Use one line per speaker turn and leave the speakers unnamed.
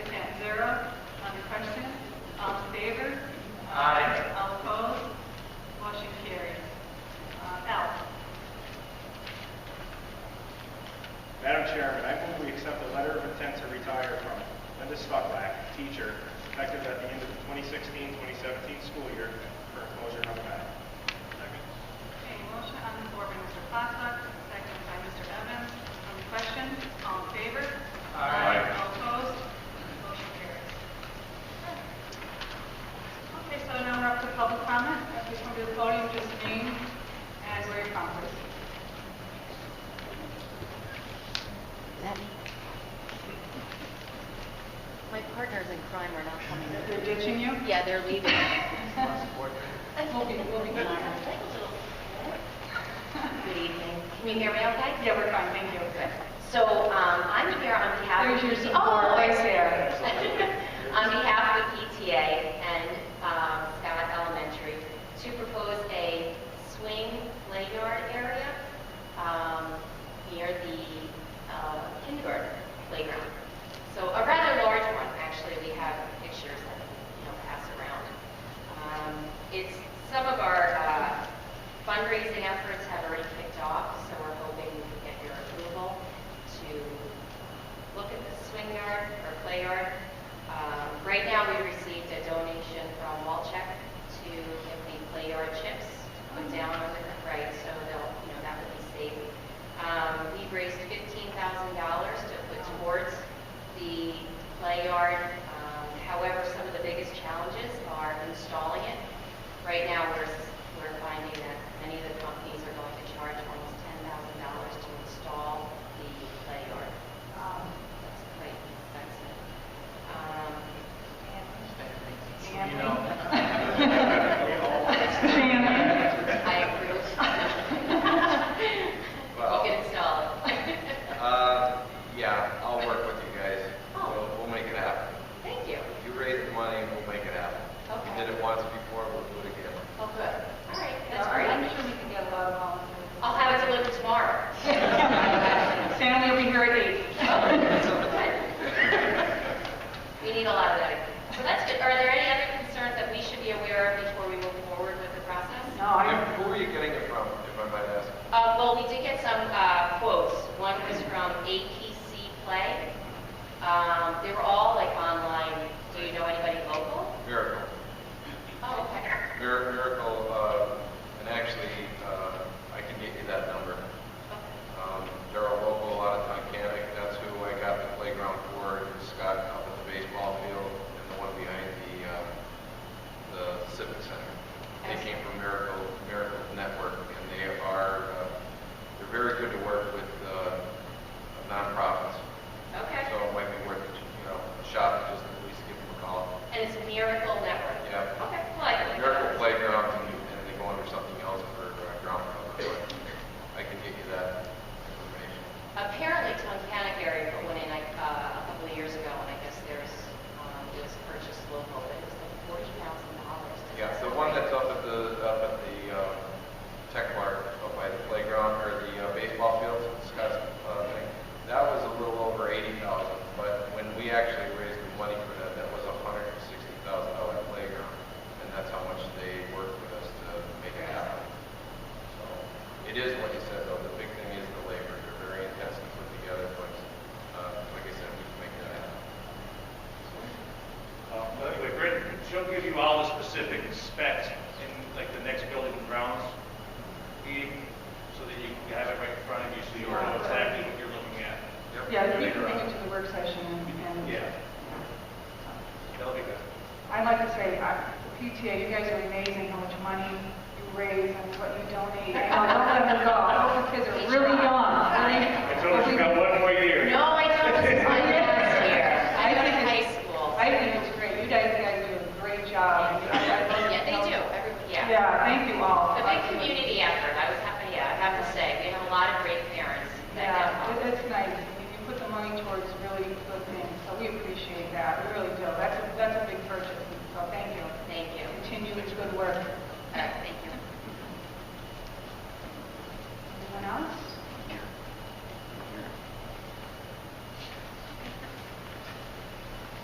Question? All in favor?
Aye.
All opposed? Motion carries. Uh, L.
Madam Chairman, I move we accept a letter of intent to retire from Linda Stucklack, teacher, effective at the end of the 2016-2017 school year for enclosure number nine. Second.
Okay, motion on the floor by Mr. Plasak, second by Mr. Evans. On the question, all in favor?
Aye.
All opposed? Motion carries. Okay, so now we're up to public comment. If you come to the podium, just name and where you're from, please.
That me? My partners in crime are not coming.
They're ditching you?
Yeah, they're leaving.
We'll be, we'll be gone.
Good evening. Can you hear me okay?
Yeah, we're fine, thank you.
So um, I'm here on behalf of...
There's your support.
Oh,
Right there.
On behalf of PTA and um, Scott Elementary, to propose a swing play yard area um, near the uh, kindergarten playground. So a rather large one, actually, we have pictures that, you know, pass around. Um, It's, some of our uh, fundraising efforts have already kicked off, so we're hoping we can get your approval to look at the swing yard or play yard. Um, Right now, we received a donation from Walcheck to get the play yard chips put down on the, right, so they'll, you know, that would be safe. Um, We raised fifteen thousand dollars to put towards the play yard. Um, However, some of the biggest challenges are installing it. Right now, we're, s- we're finding that many of the companies are going to charge almost ten thousand dollars to install the play yard.
Um,
That's quite expensive. Um,
You know.
I approve.
Well-
You can install it.
Uh, yeah, I'll work with you guys.
Oh.
We'll, we'll make it happen.
Thank you.
If you raise the money, we'll make it happen.
Okay.
We did it once before, we'll do it again.
Well, good. All right, that's
I'm
great.
sure we can get a lot of volunteers.
I'll have it delivered tomorrow.
Stanley will be here at eight.
We need a lot of that. So that's good. Are there any other concerns that we should be aware of before we move forward with the process?
No, I,
And Who are you getting it from, if I might ask?
Uh, well, we did get some, uh, quotes. One was from APC Play. Um, they were all like online. Do you know anybody local?
Miracle.
Oh, okay.
Mir- Miracle, uh, and actually, uh, I can get you that number. Um, they're a local out of Tunkhannock. That's who I got the playground for, is Scott up at the baseball field and the one behind the, um, the civic center. They came from Miracle, Miracle Network, and they are, uh, they're very good to work with, uh, nonprofits.
Okay.
So it might be worth, you know, a shot, to just at least give them a call.
And it's Miracle Network.
Yeah.
Okay, well, I can.
Miracle Playground, and and they go under something else for uh, ground cover, but I can get you that information.
Apparently, Tunkhannock area put one in like, uh, a couple of years ago, and I guess there's, um, it was purchased local, but it was like forty thousand dollars.
Yeah, the one that's up at the, up at the um, tech park, up by the playground, or the uh, baseball fields, Scott's uh, thing, that was a little over eighty thousand, but when we actually raised the money for that, that was a hundred and sixty thousand dollar playground, and that's how much they worked with us to make it happen. So, it is what you said, though, the big thing is the labor, they're very intense to put together, but, uh, like I said, we can make that happen.
Uh, By the way, Brent, she'll give you all the specific specs in like the next building and grounds meeting, so that you can have it right in front of you, so you know exactly what you're looking at.
yeah, we can take it to the work session and.
Yeah. That'll be good.
I'd like to say, uh, the PTA, you guys are amazing how much money you raise and what you donate. I know, don't let them go. I hope the kids are really
I
young,
told
really.
her she's got one more year.
No, I don't, this is my first year. I
I
went
think
to high
it's-
school.
I think it's great. You guys, you guys do a great job.
Yeah, they do, everybody, yeah.
Yeah, thank you all.
A big community effort, I was happy, yeah, I have to say, we have a lot of great parents that um, help
Yeah,
out.
it- it's nice. I mean, You put the money towards really good things, so we appreciate that. We really do. That's a, that's a big purchase, so thank you.
Thank you. Uh,
Continue with good work.